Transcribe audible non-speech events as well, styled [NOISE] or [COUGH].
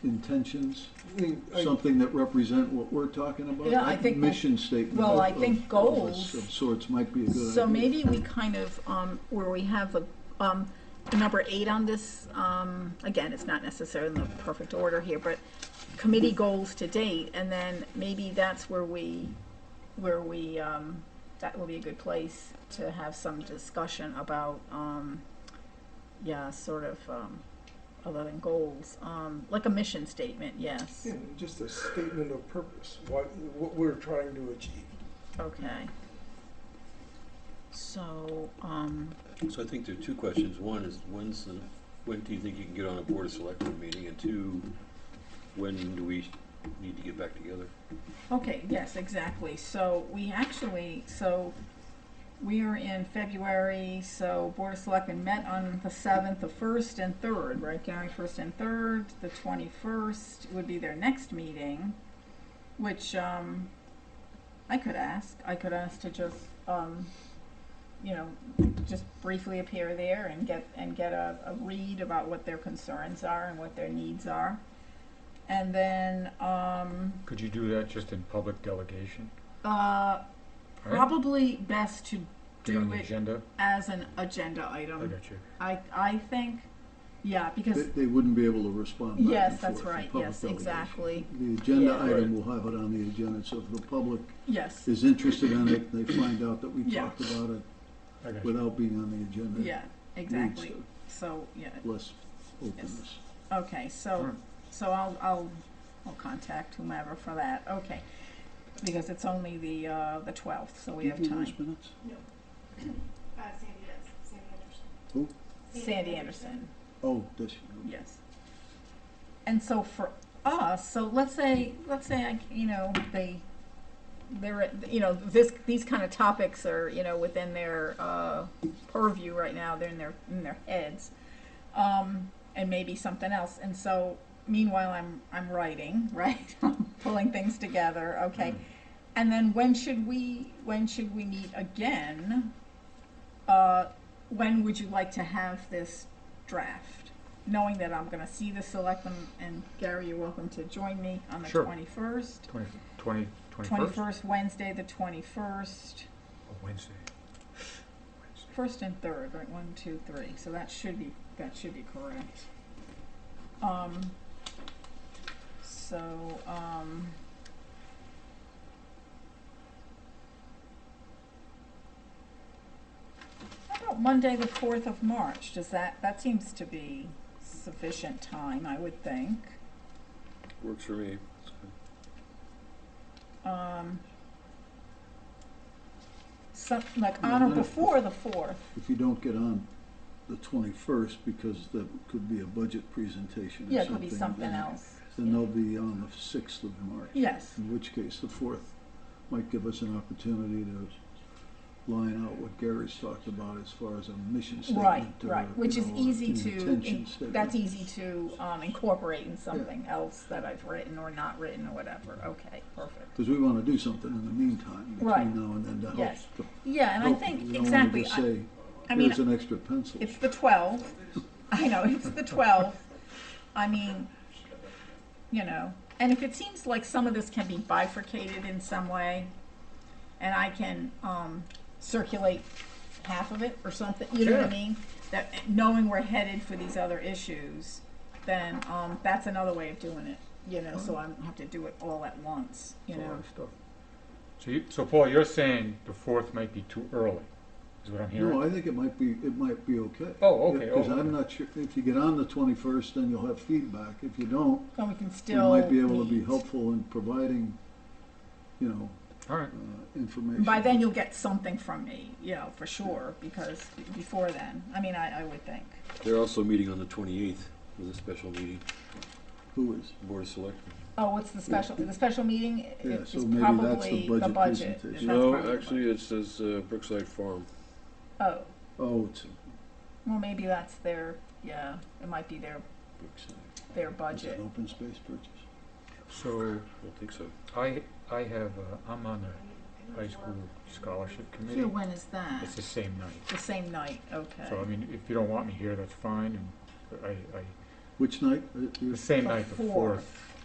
intentions, I mean, I- something that represent what we're talking about? Yeah, I Like think- Mission statement. well, of- I think of- of goals- Of sorts might be a good idea. So maybe we kind of, um, where we have the, um, the number eight on this, um, again, it's not necessarily in the perfect order here, but committee goals to date, and then maybe that's where we, where we, um, that will be a good place to have some discussion about, um, yeah, sort of, um, other than goals, um, like a mission statement, yes, yeah, just a statement of purpose, what, what we're trying to achieve. okay. So, um, So I think there are two questions. One is, when's the, when do you think you can get on a Board of Selectmen meeting? And two, when do we need to get back together? Okay, yes, exactly. So we actually, so we are in February, so Board of Selectmen met on the seventh, the first and third, right, Gary, first and third, the twenty-first would be their next meeting, which, um, I could ask, I could ask to just, um, you know, just briefly appear there and get, and get a, a read about what their concerns are and what their needs are. And then, um, Could you do that just in public delegation? uh, All right? Probably best to Be on do the it Mm-hmm. agenda? as an agenda I item. got you. I, I think, yeah, They, because, they wouldn't be able to respond back Yes, and that's forth in right. public Yes, delegation. exactly. The agenda Yeah. item will have it on the agenda, so if the public yes, is interested in it, they find out that we Yeah. talked about it I got you. without being on the agenda. it yeah, leads exactly. to So, yeah, Less openness. okay, so, Sure. so I'll, I'll, I'll contact whomever for that, okay. Because it's only the, uh, the twelfth, so we have Do you do time. those minutes? Uh, Sandy does, Sandy Anderson. Sandy Anderson, Oh, this, yes. And so for us, so let's say, let's say, I c- you know, they, they're, at- you know, this, these kind of topics are, you know, within their uh, purview right now, they're in their, in their heads. Um, and maybe something else, and so meanwhile, I'm, I'm writing, [LAUGHS] right? I'm Pulling things together, Mm. okay? And then when should we, when should we meet again? Uh, when would you like to have this draft? Knowing that I'm gonna see the selectmen, and Gary, you're welcome to join me on the Sure. twenty-first. Twenty, twenty, twenty-first? Twenty-first, Wednesday, the twenty-first, Wednesday. Wednesday. first and third, right, one, two, three, so that should be, that should be correct. Um, so, um. How about Monday, the fourth of March, does that, that seems to be sufficient time, I would think, Works for me. um. Some, like on or Yeah, that- before the fourth, if you don't get on the twenty-first, because that could be a budget presentation or something. yeah, it could be something then- else, Then they'll be on the sixth of March. yes. In which case, the fourth might give us an opportunity to line out what Gary's talked about as far as a mission Right, statement. or, right, you which is know, easy an to, intention in- that's statement. easy to um, incorporate in something else that I've written or not written or whatever. Okay, perfect. Because we want to do something in the meantime, Right. between now and then, to help. Yes. to Yeah, and I help. think, We don't wanna exactly, just I- say, I mean, here's an extra pencil. it's the twelfth, I know, it's the twelfth, I mean, you know, and if it seems like some of this can be bifurcated in some way, and I can, um, circulate half of it or something, you know what I Sure. mean? That, knowing we're headed for these other issues, then, um, that's another way of doing it, you know, so I don't have to do it all at once, you It's a lot know? of stuff. So you, so Paul, you're saying the fourth might be too early, is what I'm No, hearing? I think it might be, it might be okay. Oh, okay, Because oh, I'm okay. not sure, if you get on the twenty-first, then you'll have feedback. If you don't, And we can we still might be able to be meet. helpful in providing, you know, All right, uh, information. By then, you'll get something from me, you know, for sure, because b- before then, I mean, I, I would think. They're also meeting on the twenty-eighth with a special meeting, Who is? Board of Selectmen. Oh, what's the special, the special meeting i- Yeah, is so maybe that's the probably the budget budget. presentation. That's probably No, the actually, it says uh, Brookside Farm. budget. Oh, Oh, it's well, maybe that's their, yeah, it might be their, Brookside, their Is it budget. an open space purchase? so I don't think so. I, I have, uh, I'm on the high school scholarship So committee. when is that? It's the same night. The same night, okay. So I mean, if you don't want me here, that's fine, and I, I, Which night? Uh, you- the same night, the Before. fourth.